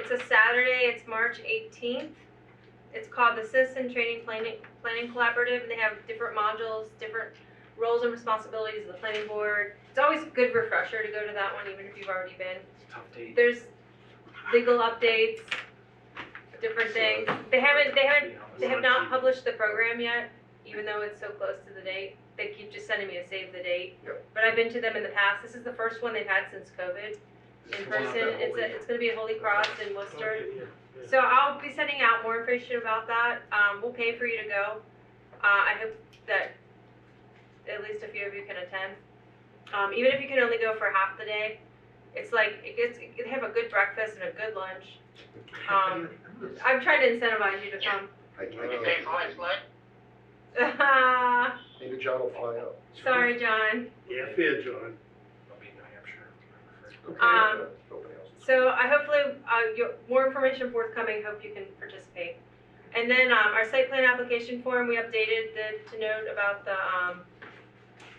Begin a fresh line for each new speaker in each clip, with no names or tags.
It's a Saturday, it's March eighteenth. It's called the Citizen Training Planning, Planning Collaborative, and they have different modules, different roles and responsibilities of the planning board. It's always a good refresher to go to that one, even if you've already been.
Tough date.
There's legal updates, different things. They haven't, they haven't, they have not published the program yet, even though it's so close to the date. They keep just sending me a save the date.
Yep.
But I've been to them in the past. This is the first one they've had since COVID in person. It's a, it's gonna be at Holy Cross in Worcester. So I'll be sending out more information about that. Um, we'll pay for you to go. Uh, I hope that at least a few of you can attend. Um, even if you can only go for half the day, it's like, it gets, they have a good breakfast and a good lunch. Um, I'm trying to incentivize you to come.
I- I
You
can't-
pay for it, Mike?
Maybe John will fly out.
Sorry, John.
Yeah, fair, John.
I'll be in New Hampshire.
Um,
Okay, uh, nobody else.
So I hopefully, uh, you, more information forthcoming, hope you can participate. And then, um, our site plan application form, we updated the, to note about the, um,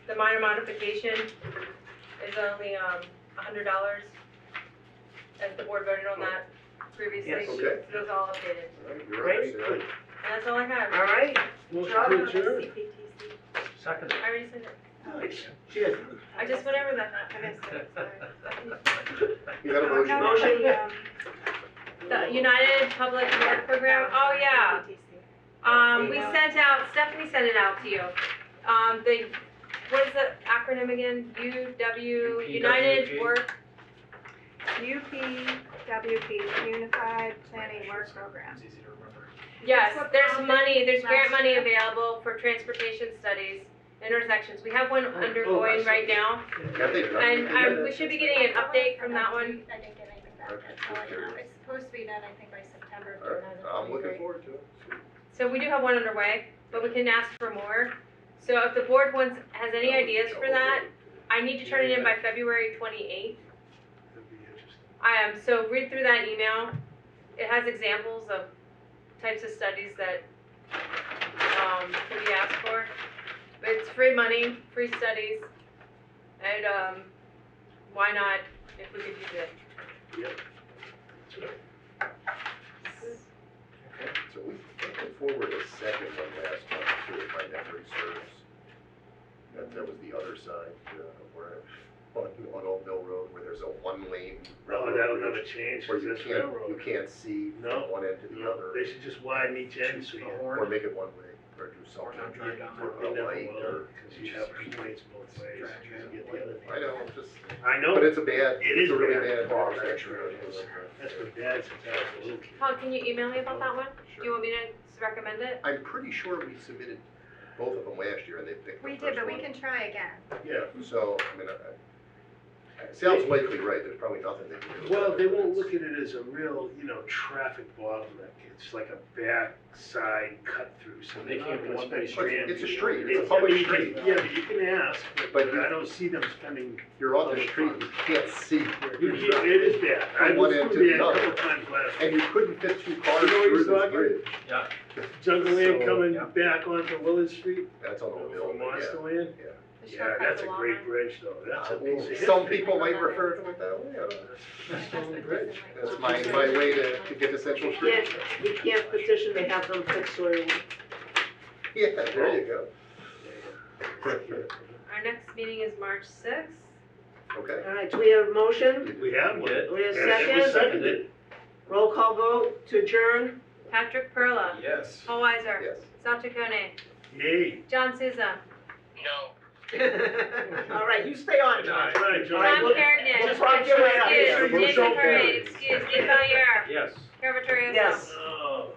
the minor modification is only, um, a hundred dollars. As the board voted on that previously,
Yes.
it
Okay.
was all updated,
All right, you're
Great,
right, Sarah.
good.
and that's all I have.
All right. Motion to adjourn.
I
Second.
already said it,
Nice. Cheers.
I just, whatever that, I guess,
You got a
um,
motion?
Motion.
the United Public Work Program, oh, yeah. Um, we sent out, Stephanie sent it out to you. Um, the, what is the acronym again? UW,
UPWP.
United E Work,
UPWP, Unified Planning Work Program.
It's easy to remember.
yes,
what
there's
Bob
money,
did
there's grant
last
money
year.
available for transportation studies, intersections. We have one
Oh,
undergoing
oh, I
right
see.
now.
Yeah, they-
And I, we should be getting an update from that one.
I didn't get anything back,
Okay,
that's all I
good.
know. It's supposed to be done, I think, by September, if
All right,
they're not,
I'm
that'd be
looking
great.
forward to it.
So we do have one underway, but we can ask for more. So if the board wants, has any ideas for that, I need to turn it in by February twenty-eighth.
That'd be interesting.
I am, so read through that email. It has examples of types of studies that, um, can be asked for. But It's free money, free studies, and, um, why not if we could use it?
So we put forward a second one last month too, if my memory serves. That, that was the other side, uh, where, on, on Old Mill Road, where there's a one-lane
Oh,
railroad
that'll
bridge
never change,
Where
because
you
that's
can't, you
railroad.
can't see
No,
from one end to the
No,
other.
They should just widen each end
Choose
so you.
the
Or
horn.
make it one-way, or do
Or not
something.
drive down the
Or
You
a
road.
never
light,
will,
or,
because you have complaints both ways. You can get the other
I know, I'm just,
I know,
but it's a bad,
It
it's
is
a really bad.
bad.
Bar
intersection.
actually, it is.
that's what dad says, I was a little kid.
Paul, can you email me about that one? Do you
Sure.
want me to recommend it?
I'm pretty sure we submitted both of them last year and they picked the
We did,
first
but we
one.
can try again.
Yeah, so, I mean, I, I- it sounds likely right, there's probably nothing they can do.
Well,
about
they
it, but
won't
it's-
look at it as a real, you know, traffic bottleneck, it's like a backside cut through, so
They
they
can't
can't
be
want
one-way
to
Well,
spend.
It's it's a street, it's a
I
public
mean, you can-
street.
Yeah, but you can ask, but-
But
but
you-
I don't see them spending,
You're on the street, you can't see. where
you-
you're
you-
driving.
it is bad,
From
I
one
was
end
through
to
there a
the
couple times last
And
week.
you couldn't fit two cars
You know what
through
he's
this
talking?
bridge.
Jungle Land
So,
coming
yeah.
back onto Willard Street,
That's on the bill,
from
Oh, yeah.
Monster Land,
The
yeah,
shortcut
that's
to
a
Walmart?
great bridge though, that's a
Uh,
piece of history.
Some people might refer to it that way, I don't know.
That's a
Yeah.
bridge.
That's my, my way to, to get to Central Street.
We can't petition to have them fix soil.
Yeah, there you go.
Our next meeting is March sixth.
Okay.
All right, do we have a motion?
We have one.
Did.
We have
And it was
second?
seconded.
Roll call vote to adjourn?
Patrick Perla,
Yes.
Paul Weiser,
Yes.
Sal Chacone,
Yay.
John Souza,
No.
All right, you stay on, John.
All right, John.
Tom
look-
Carrigan,
just wanna get right out of
excuse,
here.
Jason
Rochelle
Parade,
Perez.
excuse, Dave Valier,
Yes.
Caravatereo.
Yes.
Oh.